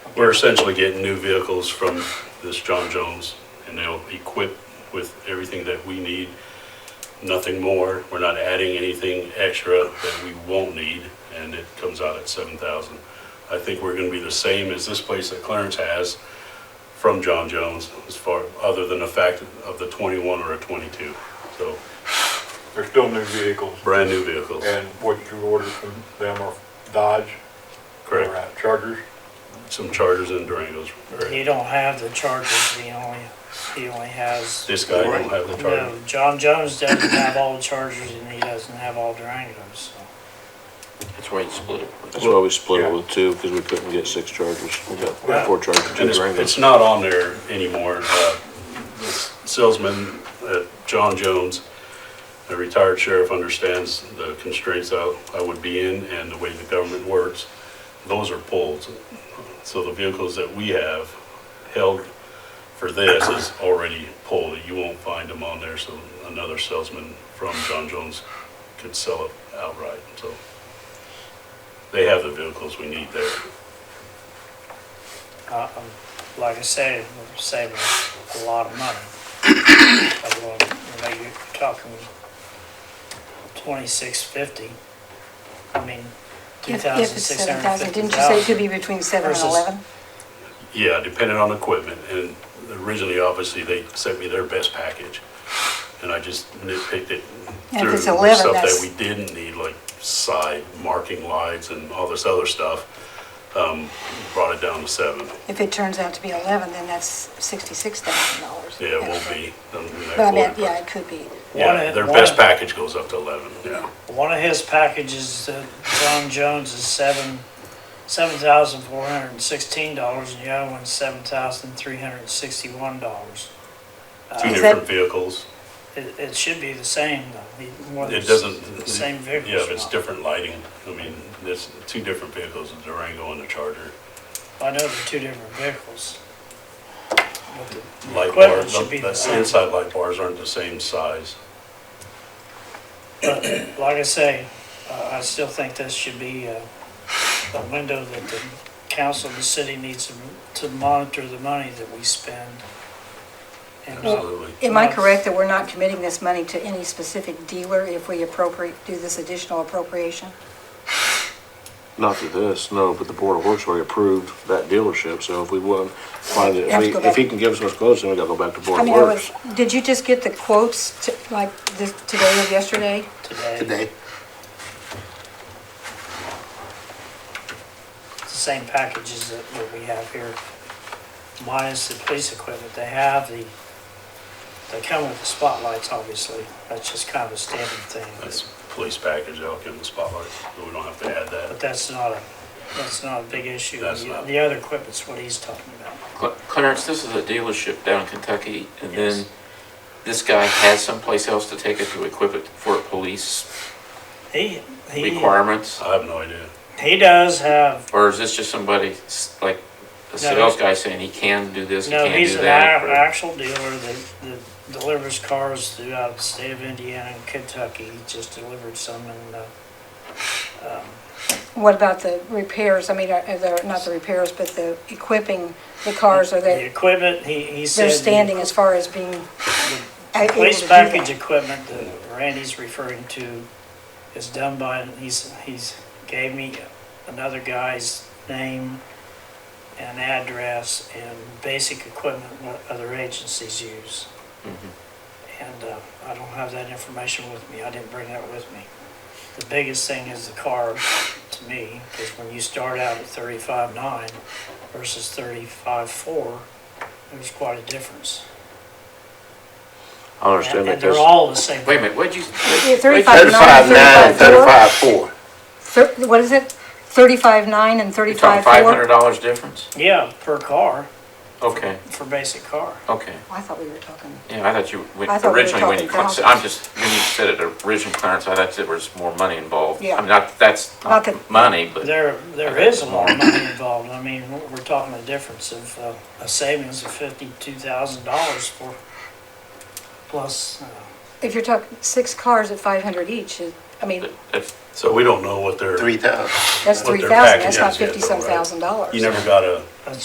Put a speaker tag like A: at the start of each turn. A: We're essentially getting new vehicles from this John Jones, and they'll equip with everything that we need, nothing more. We're not adding anything extra that we won't need, and it comes out at seven thousand. I think we're gonna be the same as this place that Clarence has from John Jones, as far, other than the fact of the twenty-one or a twenty-two. So,
B: They're still new vehicles,
A: brand-new vehicles,
B: and what you ordered from them are Dodge, or
A: correct?
B: uh, Chargers.
A: Some Chargers and Durangos.
C: You
A: correct?
C: don't have the Chargers, he only, he only has,
A: This guy don't have the Charger.
C: no, John Jones doesn't have all the Chargers and he doesn't have all Durangos, so.
D: That's why you split it.
E: That's why we split
B: Yeah.
E: it with two, because we couldn't get six chargers. We
C: Yeah.
E: got four chargers, two
A: And it's,
E: Durangos.
A: it's not on there anymore. Uh, this Salesman, uh, John Jones, a retired sheriff, understands the constraints I, I would be in and the way the government works. Those are pulled. So the vehicles that we have held for this is already pulled. You won't find them on there, so another salesman from John Jones could sell it outright, so. They have the vehicles we need there.
C: Uh, um, Like I say, we're saving a lot of money. Like, well, you know, You're talking twenty-six fifty, I mean, two
F: If- if
C: thousand
F: it's
C: six
F: 7,000,
C: hundred fifty
F: Didn't you say it
C: dollars.
F: could be between 7 and
C: Versus-
F: 11?
A: Yeah, depending on equipment, and originally, obviously, they sent me their best package, and I just nitpicked it
F: And if
A: through
F: it's 11,
A: stuff that
F: that's-
A: we didn't need, like side marking lights and all this other stuff, um, brought it down to seven.
F: If it turns out to be 11, then that's $66,000.
A: Yeah, it won't be. um, that
F: But I mean,
A: quarter,
F: yeah, it could be.
A: but- Yeah,
C: One-
A: their
C: one-
A: best package goes up to eleven, yeah.
C: One of his packages, uh, John Jones, is seven, seven thousand four hundred and sixteen dollars, and the other one's seven thousand three hundred and sixty-one dollars.
A: Two
F: Is
A: different
F: that-
A: vehicles.
C: It, it should be the same, though. He- whether
A: It
C: it's
A: doesn't.
C: the Same vehicles.
A: Yeah,
C: or
A: it's
C: not.
A: different lighting. I mean, there's two different vehicles, the Durango and the Charger.
C: I know they're two different vehicles. But the-
A: light
C: Equipment
A: bars,
C: should be the
A: the
C: same.
A: inside light bars aren't the same size.
C: But like I say, uh, I still think this should be uh, a window that the council, the city needs to- to monitor the money that we spend. And uh,
A: Absolutely.
F: Am I correct that we're not committing this money to any specific dealer if we appropriate, do this additional appropriation?
E: Not through this, no, but the Board of Works already approved that dealership, so if we wouldn't find it, if
F: Have to go
E: we-
F: back.
E: if he can give us what's close, then we gotta go back to Board
F: I
E: of
F: mean, I
E: Works.
F: was, did you just get the quotes, to- like, this- today or yesterday?
C: today,
D: Today,
C: it's the same packages that that we have here, minus the police equipment. They have the, they come with the spotlights, obviously. That's just kind of a standard thing.
A: That's police package, I'll give them the spotlight, so we don't have to add
C: But
A: that.
C: that's not a, that's not a big issue.
A: That's
C: The-
A: not-
C: The other equipment's what he's talking about.
D: Cl- Clarence, this is a dealership down in Kentucky, and
C: Yes.
D: then this guy has someplace else to take it to equip it for police
C: He, he,
D: requirements?
A: I have no idea.
C: he does have
D: Or is this just somebody, s- like, a sales guy saying he can do this, he
C: No,
D: can
C: he's
D: do
C: an
D: that?
C: a-
D: or-
C: actual dealer that, that delivers cars throughout the state of Indiana and Kentucky. He just delivered some in, uh, um,
F: What about the repairs? I mean, are are there, not the repairs, but the equipping the cars, are
C: the
F: they,
C: equipment, he, he said.
F: they're
C: the-
F: standing as far as being uh,
C: the
F: able to
C: Police
F: do
C: package
F: that?
C: equipment that Randy's referring to is done by, he's, he's gave me another guy's name and address and basic equipment what other agencies use.
D: Mhm.
C: And uh, I don't have that information with me. I didn't bring that with me. The biggest thing is the car to me, because when you start out at thirty-five nine versus thirty-five four, there's quite a difference.
E: I
C: And
E: understand
C: and
E: that
C: they're
E: there's.
C: all the same.
D: Wait a minute, what'd you?
F: Yeah,
D: what'd-
F: Thirty-five
D: what'd you-
F: nine, thirty-five four?
E: four.
F: Thir- What is it? Thirty-five nine and
D: You're talking
F: thirty-five
D: five
F: four?
D: hundred dollars difference?
C: Yeah, per car,
D: Okay,
C: for basic car.
D: okay.
F: Oh, I thought we were talking.
D: Yeah, I thought you, when-
F: I thought we were
D: originally when
F: talking
D: you, cla-
F: thousands.
D: I'm just, when you said it, original clearance, I thought there was more money involved.
F: Yeah.
D: I mean, not, that's
F: Not
D: not
F: that-
D: money, but.
C: There, there is a lot of money involved. I mean, we're- we're talking a difference of uh, a savings of fifty-two thousand dollars for, plus, uh,
F: If you're talking six cars at five hundred each, it- I mean,
D: That's
A: So we don't know what they're,
G: Three thousand.
F: that's
A: What their
F: three thousand, that's
A: package
F: not
A: is, yeah,
F: fifty-some
A: right.
F: thousand dollars.
A: you never got a